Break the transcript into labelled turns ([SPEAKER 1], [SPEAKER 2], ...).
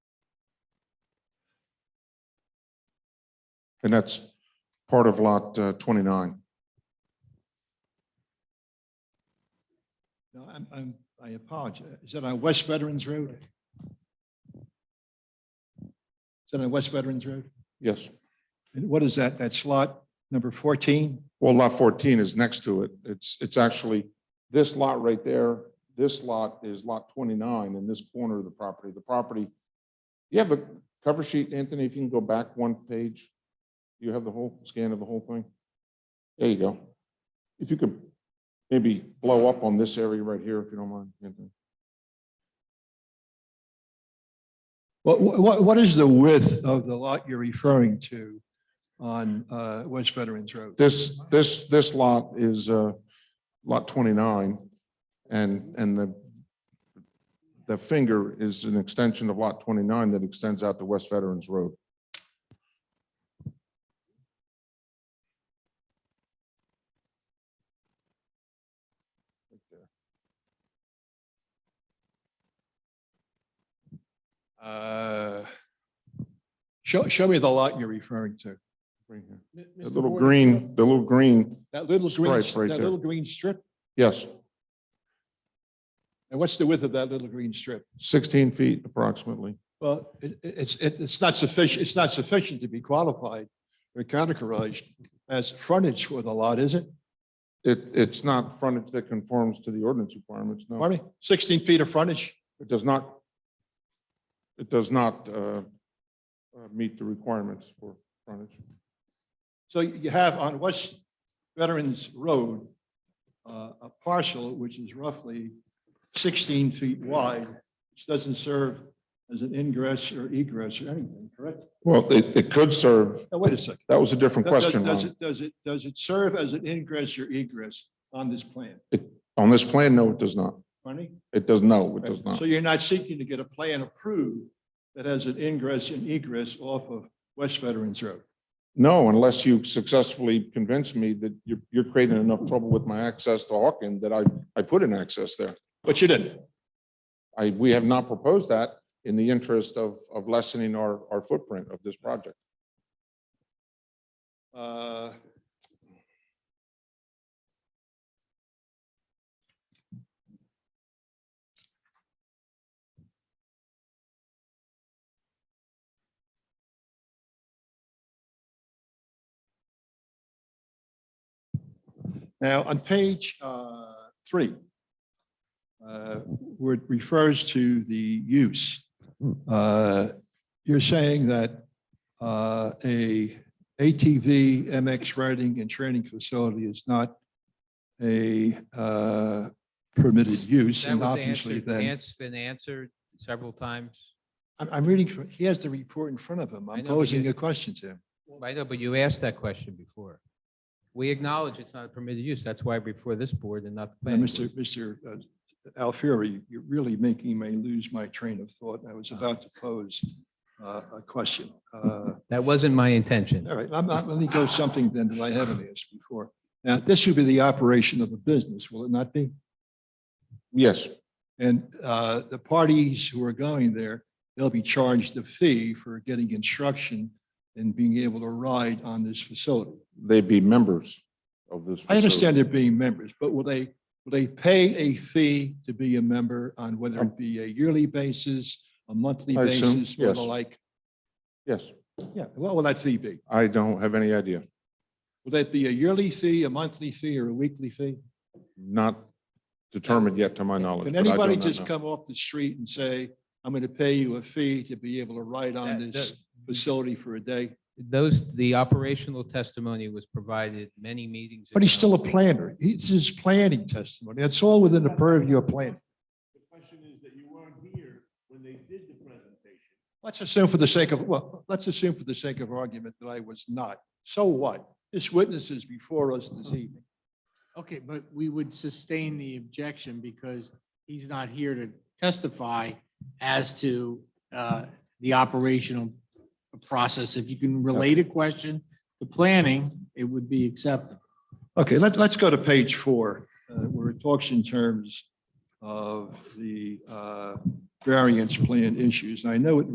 [SPEAKER 1] And that's part of lot uh, 29.
[SPEAKER 2] No, I'm, I'm, I apologize. Is that on West Veterans Road? Is that on West Veterans Road?
[SPEAKER 1] Yes.
[SPEAKER 2] And what is that? That's lot number fourteen?
[SPEAKER 1] Well, lot 14 is next to it. It's, it's actually this lot right there. This lot is lot 29 in this corner of the property. The property, you have the cover sheet, Anthony, if you can go back one page. Do You have the whole scan of the whole thing? There you go. If you could maybe blow up on this area right here, if you don't mind, Anthony.
[SPEAKER 2] What, what, what is the width of the lot you're referring to on, uh, West Veterans Road?
[SPEAKER 1] This, this, this lot is, uh, lot twenty-nine, and, and the, the finger is an extension of lot twenty-nine that extends out to West Veterans Road.
[SPEAKER 2] Uh, Show, show me the lot you're referring to.
[SPEAKER 1] right here. The little green, the little green,
[SPEAKER 2] That little green,
[SPEAKER 1] Stripe right
[SPEAKER 2] that
[SPEAKER 1] there.
[SPEAKER 2] little green strip?
[SPEAKER 1] yes,
[SPEAKER 2] And what's the width of that little green strip?
[SPEAKER 1] sixteen feet approximately.
[SPEAKER 2] Well, it, it- it's, it- it's not sufficient, it's not sufficient to be qualified or categorized as frontage for the lot, is it?
[SPEAKER 1] It, it's not frontage that conforms to the ordinance requirements, no.
[SPEAKER 2] Pardon me? 16 feet of frontage?
[SPEAKER 1] It does not, it does not, uh, uh, meet the requirements for frontage.
[SPEAKER 2] So you have on West Veterans Road, uh, a parcel which is roughly 16 feet wide, which doesn't serve as an ingress or egress or anything, correct?
[SPEAKER 1] Well, it, it could serve,
[SPEAKER 2] Now, wait a second.
[SPEAKER 1] that was a different
[SPEAKER 2] Does-
[SPEAKER 1] question,
[SPEAKER 2] Does
[SPEAKER 1] Ron.
[SPEAKER 2] it, does it, does it serve as an ingress or egress on this plan?
[SPEAKER 1] On this plan, no, it does not.
[SPEAKER 2] Funny?
[SPEAKER 1] It does, no, it does
[SPEAKER 2] Right.
[SPEAKER 1] not.
[SPEAKER 2] So you're not seeking to get a plan approved that has an ingress and egress off of West Veterans Road?
[SPEAKER 1] No, unless you successfully convince me that you're, you're creating enough trouble with my access to Hawken that I, I put an access there.
[SPEAKER 2] But you didn't.
[SPEAKER 1] I, we have not proposed that in the interest of, of lessening our, our footprint of this project.
[SPEAKER 2] Uh, Now, on page uh, three, uh, where it refers to the use, uh, you're saying that uh, a ATV MX riding and training facility is not a uh, permitted use.
[SPEAKER 3] That
[SPEAKER 2] and
[SPEAKER 3] was
[SPEAKER 2] obviously
[SPEAKER 3] answered,
[SPEAKER 2] then
[SPEAKER 3] That's been answered several times.
[SPEAKER 2] I'm, I'm reading, from- he has the report in front of him.
[SPEAKER 3] I
[SPEAKER 2] I'm
[SPEAKER 3] know, but
[SPEAKER 2] posing
[SPEAKER 3] you-
[SPEAKER 2] a question to him.
[SPEAKER 3] I know, but you asked that question before. We acknowledge it's not a permitted use. That's why we're before this board and not the
[SPEAKER 2] Now,
[SPEAKER 3] planning.
[SPEAKER 2] Mr. Mr. uh, Alfieri, you're really making me lose my train of thought. I
[SPEAKER 3] Ah.
[SPEAKER 2] was about to pose uh, a question. Uh,
[SPEAKER 3] board. That wasn't my intention.
[SPEAKER 2] All right, I'm not, let me go something then that I haven't asked before. Now, this would be the operation of a business, will it not be?
[SPEAKER 1] Yes,
[SPEAKER 2] And uh, the parties who are going there, they'll be charged a fee for getting instruction and being able to ride on this facility.
[SPEAKER 1] they'd be members of this.
[SPEAKER 2] I
[SPEAKER 1] facility.
[SPEAKER 2] understand they're being members, but will they, will they pay a fee to be a member on whether it be a yearly basis, a monthly
[SPEAKER 1] Um, I assume,
[SPEAKER 2] basis, or
[SPEAKER 1] yes.
[SPEAKER 2] the like?
[SPEAKER 1] Yes,
[SPEAKER 2] Yeah, what will that fee be?
[SPEAKER 1] I don't have any idea.
[SPEAKER 2] Will that be a yearly fee, a monthly fee, or a weekly fee?
[SPEAKER 1] Not determined yet to my knowledge.
[SPEAKER 2] Can
[SPEAKER 1] but I do
[SPEAKER 2] anybody
[SPEAKER 1] not
[SPEAKER 2] just
[SPEAKER 1] know.
[SPEAKER 2] come off the street and say, I'm going to pay you a fee to be able to ride on
[SPEAKER 3] That-
[SPEAKER 2] this facility for a day?
[SPEAKER 3] Those, the operational testimony was provided many meetings.
[SPEAKER 2] But he's
[SPEAKER 3] ago.
[SPEAKER 2] still a planner. He's his planning testimony. That's all within the purview of planning.
[SPEAKER 4] The question is that you weren't here when they did the presentation.
[SPEAKER 2] Let's assume for the sake of, well, let's assume for the sake of argument that I was not. So what? This witness is before us this evening.
[SPEAKER 5] Okay, but we would sustain the objection because he's not here to testify as to uh, the operational process. If you can relate a question to planning, it would be acceptable.
[SPEAKER 2] Okay, let, let's go to page four, uh, where it talks in terms of the uh, variance plan issues. And I know it